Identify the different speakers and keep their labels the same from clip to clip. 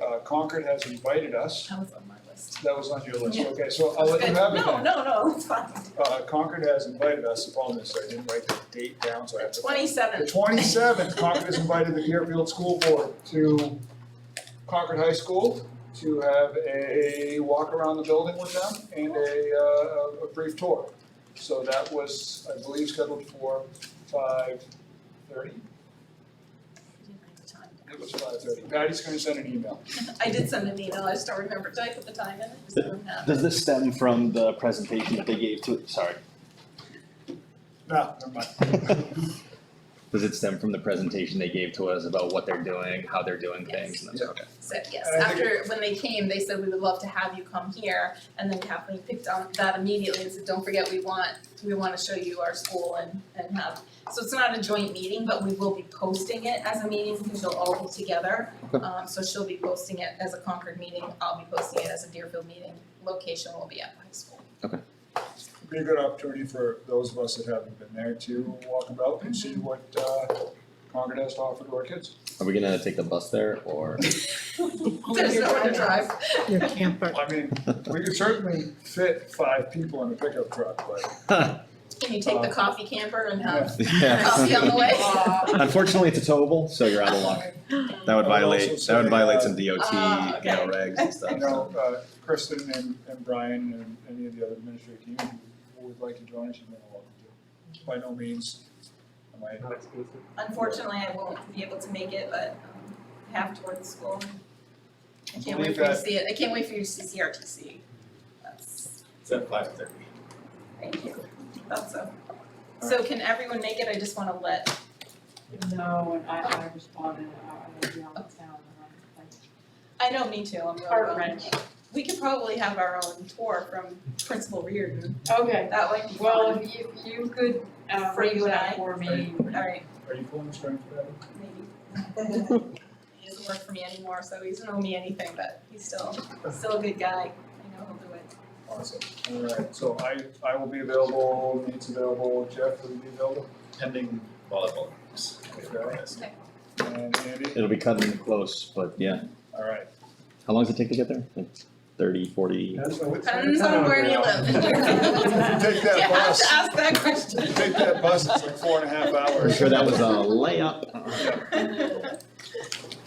Speaker 1: Uh, Concord has invited us.
Speaker 2: That was on my list.
Speaker 1: That was on your list,
Speaker 2: Yeah.
Speaker 1: okay, so I'll let Oh, you have it
Speaker 2: No,
Speaker 1: then.
Speaker 2: no, no, it's fine.
Speaker 1: Uh, Concord has invited us, the problem is I didn't write the date down, so I have to. The
Speaker 2: Twenty-seventh.
Speaker 1: twenty-seventh, Concord has invited the Deerfield School Board to Concord High School to have a walk around the building with them and a, uh, a brief tour. So that was, I believe, scheduled for five thirty, it was five thirty. Patty's gonna send an email.
Speaker 2: I did send an email, I just don't remember, did I put the time in? Just don't have it.
Speaker 3: Does this stem from the presentation that they gave to, sorry,
Speaker 1: No, never mind.
Speaker 3: does it stem from the presentation they gave to us about what they're doing, how they're doing things? and that's-
Speaker 1: Yeah.
Speaker 3: okay.
Speaker 2: So, yes,
Speaker 1: And I think
Speaker 2: after, when they came, they said, we would love to have you come here, and then Kathleen picked on that immediately and said, don't forget, we want, we wanna show you our school and, and have, so it's not a joint meeting, but we will be posting it as a meeting, because you'll all be together.
Speaker 3: Okay.
Speaker 2: Um, so she'll be posting it as a Concord meeting, I'll be posting it as a Deerfield meeting, location will be at the high school.
Speaker 1: It'd Be a good opportunity for those of us that haven't been there to walk about and see what, uh, Concord has to offer to our kids.
Speaker 3: Are we gonna take the bus there or?
Speaker 2: There's nowhere to drive.
Speaker 4: Your camper.
Speaker 1: I mean, we could certainly fit five people in a pickup truck, but
Speaker 2: Can you take the
Speaker 5: Uh,
Speaker 2: coffee camper and have coffee on
Speaker 3: Yeah.
Speaker 2: the way?
Speaker 3: Unfortunately, it's a towable, so you're out of luck. That would
Speaker 1: I would
Speaker 3: violate,
Speaker 1: also
Speaker 3: that
Speaker 1: say,
Speaker 3: would violate
Speaker 1: uh,
Speaker 3: some DOT, you know,
Speaker 2: Ah, okay.
Speaker 3: regs and
Speaker 1: I
Speaker 3: stuff, so.
Speaker 1: know, uh, Kristen and, and Brian and any of the other administrative team who would like to join us, you're more than welcome to. By no means am I,
Speaker 2: Unfortunately, I won't be able to make it, but um, I have toward the school. I can't
Speaker 1: Believe
Speaker 2: wait for you to
Speaker 1: that.
Speaker 2: see it, I can't wait for you to see CRTC. That's,
Speaker 5: It's at five thirty.
Speaker 2: thank you, that's so. So can everyone make it? I just wanna let,
Speaker 6: No, and I, I responded, I, I was out of town, and
Speaker 2: I know, me too, I'm
Speaker 6: I'm
Speaker 2: really.
Speaker 6: like, heart wrench.
Speaker 2: We could probably have our own tour from Principal Reardon,
Speaker 6: Okay,
Speaker 2: that might be
Speaker 6: well,
Speaker 2: fun.
Speaker 6: if you, you could, uh,
Speaker 2: For
Speaker 6: raise
Speaker 2: you and I?
Speaker 6: that for me.
Speaker 2: Alright,
Speaker 1: are you pulling strings for that?
Speaker 2: maybe. He doesn't work for me anymore, so he doesn't owe me anything, but he's still, still a good guy, I know he'll do it.
Speaker 1: Awesome, all right, so I, I will be available, Nate's available, Jeff will be available,
Speaker 5: Pending volleyball.
Speaker 1: Okay. and Andy,
Speaker 3: It'll be cutting close, but yeah.
Speaker 1: all right.
Speaker 3: How long does it take to get there? Like Thirty, forty?
Speaker 2: Depends on where you live.
Speaker 1: Take that
Speaker 2: You have to
Speaker 1: bus,
Speaker 2: ask that question.
Speaker 1: take that bus, it's like four and a half hours.
Speaker 3: I'm sure that was a layup.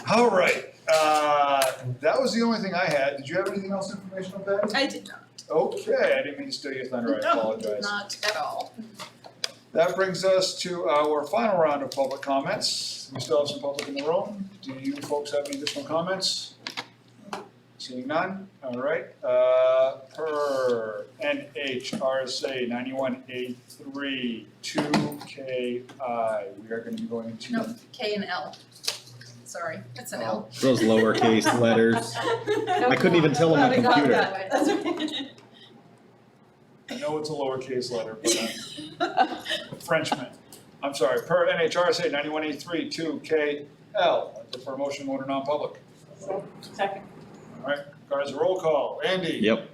Speaker 1: All right, uh, that was the only thing I had. Did you have anything else informational, Patty?
Speaker 2: I did not,
Speaker 1: Okay, I didn't mean to steal your thunder, I
Speaker 2: no, did
Speaker 1: apologize.
Speaker 2: not at all.
Speaker 1: That brings us to our final round of public comments. We still have some public in the room. Do you folks have any additional comments? Seeing none, all right. Uh, Per NHRSA ninety-one A three two K I, we are gonna be going into.
Speaker 2: No, K and L. Sorry, it's an L.
Speaker 3: Those lowercase letters. I couldn't even tell on
Speaker 2: Glad
Speaker 3: my
Speaker 2: I got
Speaker 3: computer.
Speaker 2: that way. That's right.
Speaker 1: I know it's a lowercase letter, but I'm a Frenchman. I'm sorry, per NHRSA ninety-one eight three two K L, I prefer motion to order non-public.
Speaker 6: So, second,
Speaker 1: All right, guys, roll call, Andy?
Speaker 3: Yep,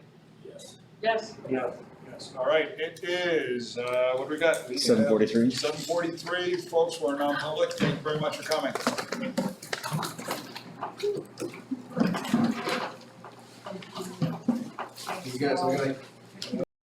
Speaker 5: Yes.
Speaker 6: yes,
Speaker 1: Yes, all right, it is, uh, what do we got?
Speaker 3: seven forty-three.
Speaker 1: Seven forty-three, folks, we're non-public, thank you very much for coming.
Speaker 5: You guys look like